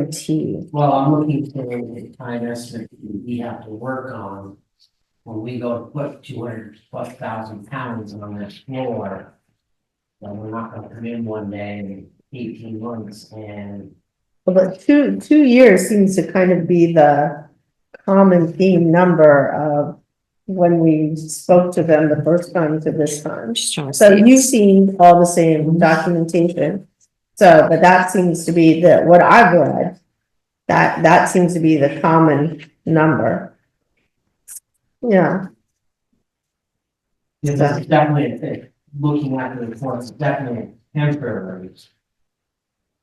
guarantee. Well, I'm looking for the time estimate that we have to work on. When we go to put two hundred plus thousand pounds on that floor. Then we're not gonna come in one day in eighteen months and But two, two years seems to kind of be the common theme number of when we spoke to them the first time to this time. just trying to So see. you've seen all the same documentation. So, but that seems to be the, what I've read, that, that seems to be the common number. Yeah, this is definitely, a thing. looking at the report, it's definitely a temporary.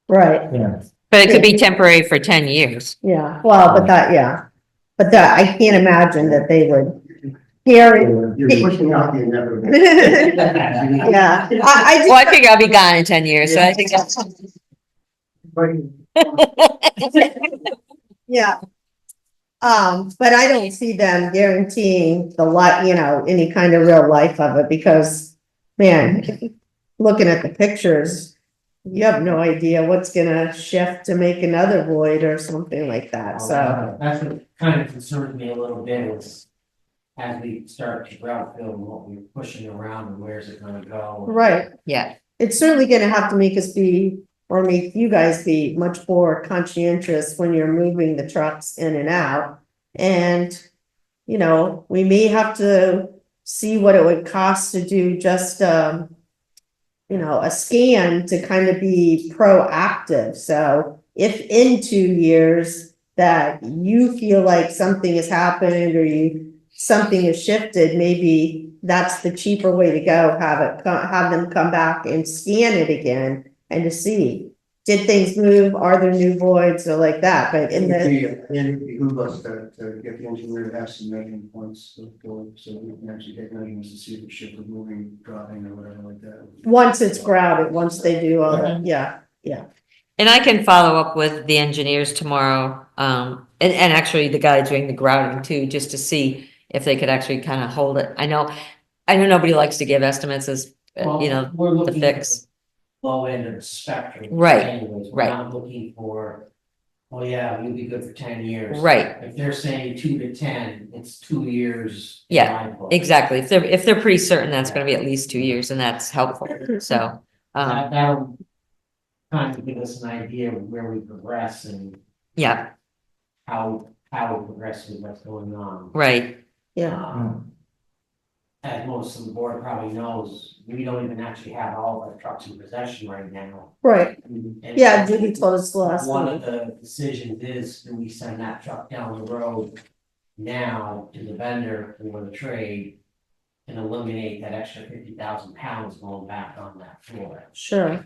right, Yes. But it could be temporary for ten years. yeah, well, but that, yeah. But that, I can't imagine that they would hear it. You're pushing out the inevitable. Yeah. Yeah, I, Well, I I figure I'll be gone in ten years, so I think that's. do, yeah. Um, but I don't see them guaranteeing the li- you know, any kind of real life of it because, man, looking at the pictures, you have no idea what's gonna shift to make another void or something like that, so. That's what kind of concerns me a little bit is. As we start to route build what we're pushing around and where's it gonna go? Right, Yeah, it's certainly gonna have to make us be, or make you guys be much more conscientious when you're moving the trucks in and out. And, you know, we may have to see what it would cost to do just, um, you know, a scan to kind of be proactive. So if in two years that you feel like something has happened or you, something has shifted, maybe that's the cheaper way to go, have it, co- have them come back and scan it again and to see, did things move? Are there new voids or like that? But in the. And it behooves us to, to get the engineer to have some measuring points of going, so we can actually take measurements to see if the ship is moving, dropping or whatever like that. Once it's grouted, once they do all Mm-hmm. that, yeah, and I can follow up with the engineers tomorrow, um, and, and actually the guy doing the grouting too, just to see if they could actually kind of hold it. I know, I know nobody likes to give estimates as, uh, you know, know, the fix. Low end of the spectrum. Right, anyways. We're right. Not looking for, oh yeah, we'll be good for ten years. Right, If they're saying two to ten, it's two years. in Yeah, my book. exactly. If they're, if they're pretty certain that's gonna be at least two years and that's helpful, so, um, That, that'll kind of give us an idea of where we progress and yeah, how, how we progress with what's going on. right. yeah. Um, As most of the board probably knows, we don't even actually have all of our trucks in possession right now. Right, And- yeah, Judy told us last One one. of the decisions is, do we send that truck down the road now to the vendor for the trade? And eliminate that extra fifty thousand pounds going back on that floor? sure.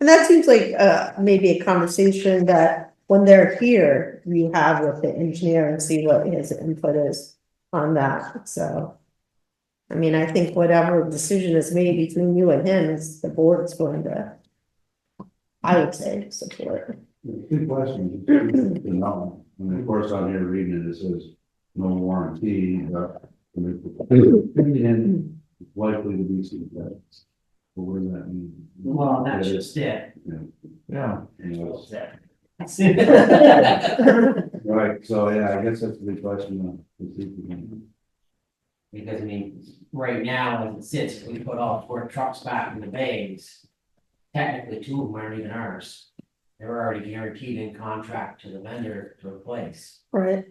And that seems like, uh, maybe a conversation that when they're here, you have with the engineer and see what his input is on that, so. I mean, I think whatever decision is made between you and him is the board's going to, I would say, support. Good question. You know, And of course, I'm here reading it, it says no warranty, but and it's likely to be some defects. But what does that mean? Well, that's just it. Yeah. Anyways, Because Right, so yeah, I guess that's a good question. uh, to see if we can- I mean, right now, as it sits, if we put all four trucks back in the bays. Technically, two of them aren't even ours. They're already guaranteed in contract to the vendor to replace. Right,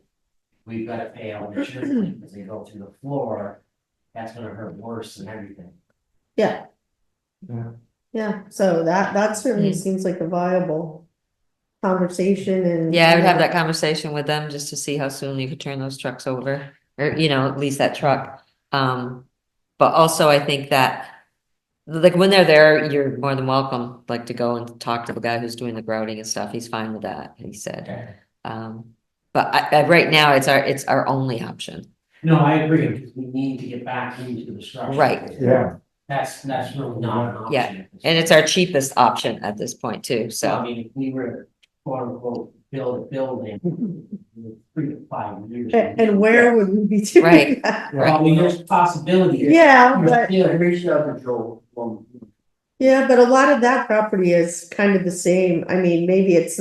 we've gotta pay out insurance claim because they go through the floor, that's gonna hurt worse than everything. yeah. Yeah. Yeah, so that, that certainly Mm. seems like a viable conversation and. Yeah, I would have that conversation with them just to see how soon you could turn those trucks over, or, you know, at least that truck. Um, but also I think that, like, when they're there, you're more than welcome, like, to go and talk to the guy who's doing the grouting and stuff. He's fine with that, he said. Um, but I, I, right now, it's our, it's our only option. No, I agree, because we need to get back into the structure. Right. Yeah. That's, that's really not an option. Yeah, And it's our cheapest option at this point too, So, I so, mean, if we were, quote unquote, build a building, in three to five years. And, and where would we be doing Right. that? Well, I mean, there's possibilities. Yeah, but, Yeah, I reached out to Joel, um, Yeah, but a lot of that property is kind of the same. I mean, maybe it's